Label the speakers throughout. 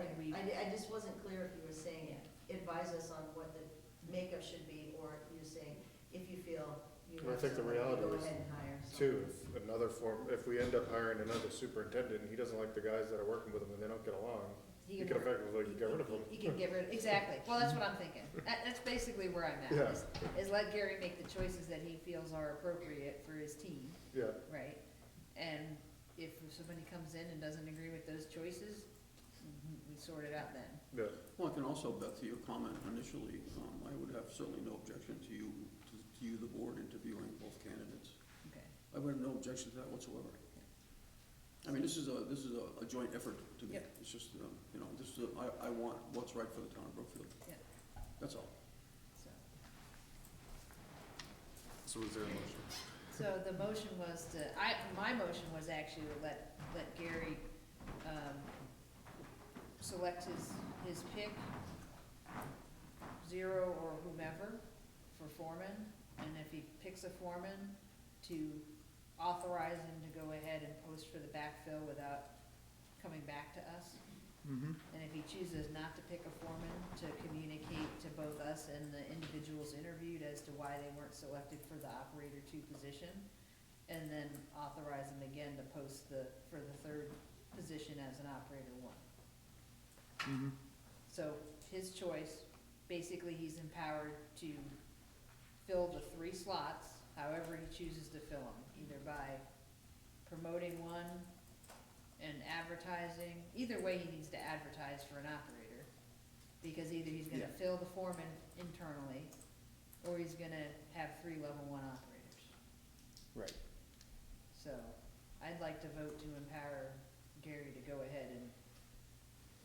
Speaker 1: I, I just wasn't clear if you were saying advise us on what the makeup should be, or you're saying if you feel you
Speaker 2: Well, I
Speaker 1: have
Speaker 2: think the
Speaker 1: somebody,
Speaker 2: reality
Speaker 1: go
Speaker 2: is,
Speaker 1: ahead and hire
Speaker 2: Two,
Speaker 1: someone.
Speaker 2: if another form, if we end up hiring another superintendent, and he doesn't like the guys that are working with him and they don't get along,
Speaker 1: He
Speaker 2: you can
Speaker 1: can, work-
Speaker 2: effectively get rid of them.
Speaker 1: he can get rid,
Speaker 3: Exactly, well, that's what I'm thinking. That, that's basically where I'm
Speaker 2: Yeah.
Speaker 3: at, is, is let Gary make the choices that he feels are appropriate for his team,
Speaker 2: Yeah,
Speaker 3: right? And if somebody comes in and doesn't agree with those choices, we sort it out then.
Speaker 2: yeah,
Speaker 4: Well, I can also, Beth, to your comment initially, um, I would have certainly no objection to you, to- to you, the board, interviewing both candidates.
Speaker 3: Okay.
Speaker 4: I would have no objection to that whatsoever. I mean, this is a, this is a, a joint effort to me.
Speaker 3: Yep.
Speaker 4: It's just, um, you know, this is, a- I, I want what's right for the town of Brookfield.
Speaker 3: Yep.
Speaker 4: That's all.
Speaker 3: So,
Speaker 5: So is there a motion?
Speaker 3: so the motion was to, I, my motion was actually to let, let Gary, um, select his, his pick, zero or whomever, for foreman, and if he picks a foreman, to authorize him to go ahead and post for the backfill without coming back to us.
Speaker 5: Mm-hmm.
Speaker 3: And if he chooses not to pick a foreman, to communicate to both us and the individuals interviewed as to why they weren't selected for the operator two position. And then authorize them again to post the, for the third position as an operator one.
Speaker 5: Mm-hmm.
Speaker 3: So his choice, basically he's empowered to fill the three slots, however he chooses to fill them, either by promoting one and advertising, either way he needs to advertise for an operator. Because either he's gonna
Speaker 5: Yeah.
Speaker 3: fill the foreman internally, or he's gonna have three level one operators.
Speaker 5: Right.
Speaker 3: So, I'd like to vote to empower Gary to go ahead and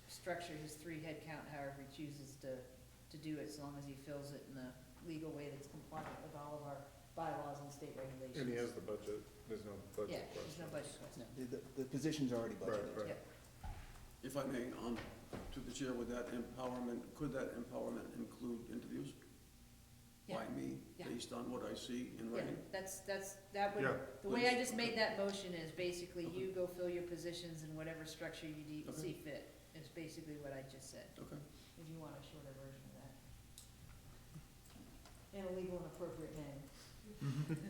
Speaker 3: structure his three head count however he chooses to, to do it, as long as he fills it in the legal way that's compliant with all of our bylaws and state regulations.
Speaker 2: and he has the budget, there's no
Speaker 3: Yeah,
Speaker 2: budget
Speaker 3: there's
Speaker 2: question.
Speaker 3: no budget question.
Speaker 5: The, the, the position's already
Speaker 2: Right,
Speaker 5: budgeted.
Speaker 2: right.
Speaker 4: If I may, um, to the chair, with that empowerment, could that empowerment include interviews? By
Speaker 3: Yeah.
Speaker 4: me,
Speaker 3: Yeah.
Speaker 4: based on what I see in
Speaker 3: Yeah,
Speaker 4: writing?
Speaker 3: that's, that's, that would,
Speaker 2: Yeah,
Speaker 3: the way I
Speaker 4: please.
Speaker 3: just made that motion is basically you go
Speaker 4: Okay.
Speaker 3: fill your positions in whatever structure you de-
Speaker 4: Okay.
Speaker 3: see fit, is basically what I just said,
Speaker 4: Okay,
Speaker 3: if you want a shorter version of that. In a legal and appropriate name.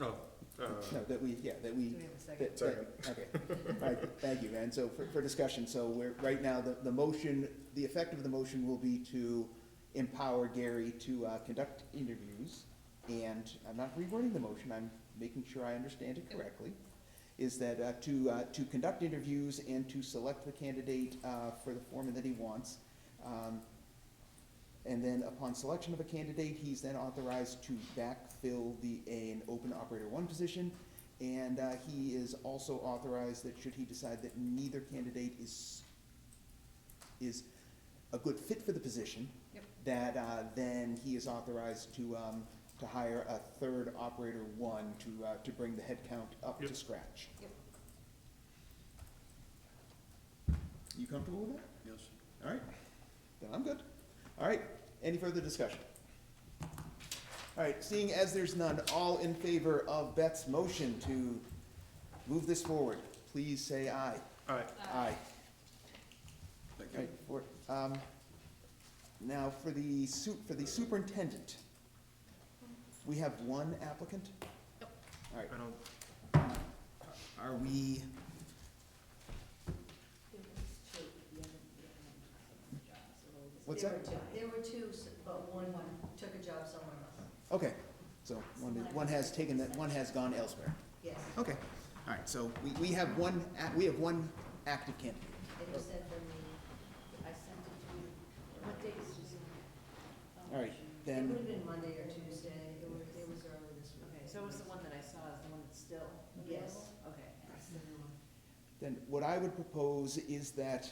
Speaker 2: Oh, uh,
Speaker 5: No, that we, yeah, that
Speaker 3: Do
Speaker 5: we,
Speaker 3: we have a second?
Speaker 5: that, that, okay. All right, thank you, and so for, for discussion, so we're, right now, the, the motion, the effect of the motion will be to empower Gary to, uh, conduct interviews, and I'm not rewording the motion, I'm making sure I understand it correctly, is that, uh, to, uh, to conduct interviews and to select the candidate, uh, for the foreman that he wants. Um, and then upon selection of a candidate, he's then authorized to backfill the, an open operator one position, and uh, he is also authorized that should he decide that neither candidate is, is a good fit for the position,
Speaker 3: Yep.
Speaker 5: that uh, then he is authorized to, um, to hire a third operator one to, uh, to bring the headcount up to
Speaker 2: Yep.
Speaker 5: scratch.
Speaker 3: Yep.
Speaker 5: You comfortable with that?
Speaker 4: yes.
Speaker 5: All right, then I'm good. All right, any further discussion? All right, seeing as there's none, all in favor of Beth's motion to move this forward, please say aye.
Speaker 2: all right,
Speaker 5: Aye.
Speaker 4: Thank you.
Speaker 5: All right, for, um, now for the su, for the superintendent, we have one applicant? All right,
Speaker 2: I don't,
Speaker 5: are we,
Speaker 1: There was two, the other- the other one took a job, so there was-
Speaker 5: What's
Speaker 1: there
Speaker 5: that?
Speaker 1: were two. There were two, s- but one took a job somewhere else,
Speaker 5: okay, so one, one has taken that, one has gone elsewhere.
Speaker 1: yes.
Speaker 5: Okay, all right, so we, we have one, a- we have one active candidate.
Speaker 1: And you sent them the, I sent it to you, what date is this?
Speaker 5: All right,
Speaker 1: It would
Speaker 5: then,
Speaker 1: have been Monday or Tuesday, it was, it was early this week.
Speaker 3: Okay, so it was the one that I saw, is the one that's still available?
Speaker 1: Yes.
Speaker 3: Okay.
Speaker 1: That's the new one.
Speaker 5: then what I would propose is that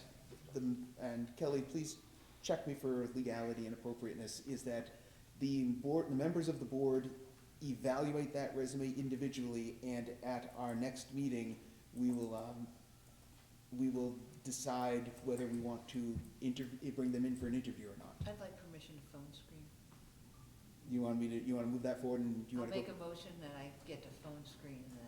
Speaker 5: the, and Kelly, please check me for legality and appropriateness, is that the board, the members of the board evaluate that resume individually, and at our next meeting, we will, um, we will decide whether we want to inter, bring them in for an interview or not.
Speaker 3: I'd like permission to phone screen.
Speaker 5: You want me to, you wanna move that forward, and you
Speaker 3: I'll
Speaker 5: wanna go?
Speaker 3: make a motion that I get to phone screen the